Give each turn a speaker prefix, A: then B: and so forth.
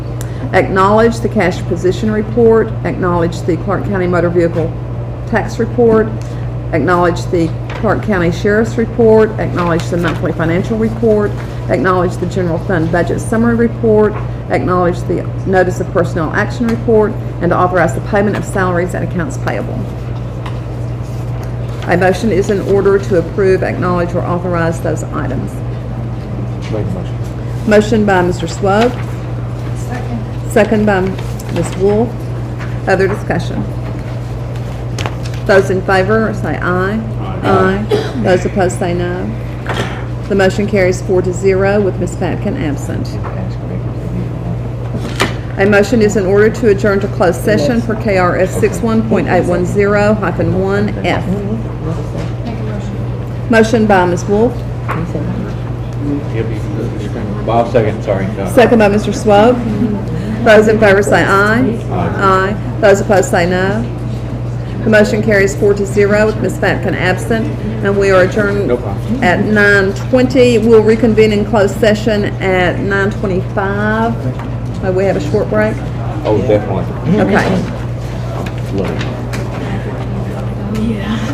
A: Acknowledge the cash position report, acknowledge the Clark County Motor Vehicle Tax Report, acknowledge the Clark County Sheriff's Report, acknowledge the monthly financial report, acknowledge the general fund budget summary report, acknowledge the notice of personnel action report, and authorize the payment of salaries and accounts payable. A motion is in order to approve, acknowledge, or authorize those items.
B: Make a motion.
A: Motion by Mr. Swope. Second. Second by Ms. Wolf. Other discussion. Those in favor, say aye. Aye. Those opposed, say no. The motion carries four to zero with Ms. Patkin absent. A motion is in order to adjourn to closed session per KRS 61.810-1F.
C: Make a motion.
A: Motion by Ms. Wolf,
B: Bob, second, sorry.
A: Second by Mr. Swope. Those in favor say aye. Aye. Those opposed say no. The motion carries four to zero with Ms. Fatkin absent, and we are adjourned
B: No problem.
A: at 9:20. We'll reconvene in closed session at 9:25. May we have a short break?
B: Oh, definitely.
A: Okay.
B: Love it.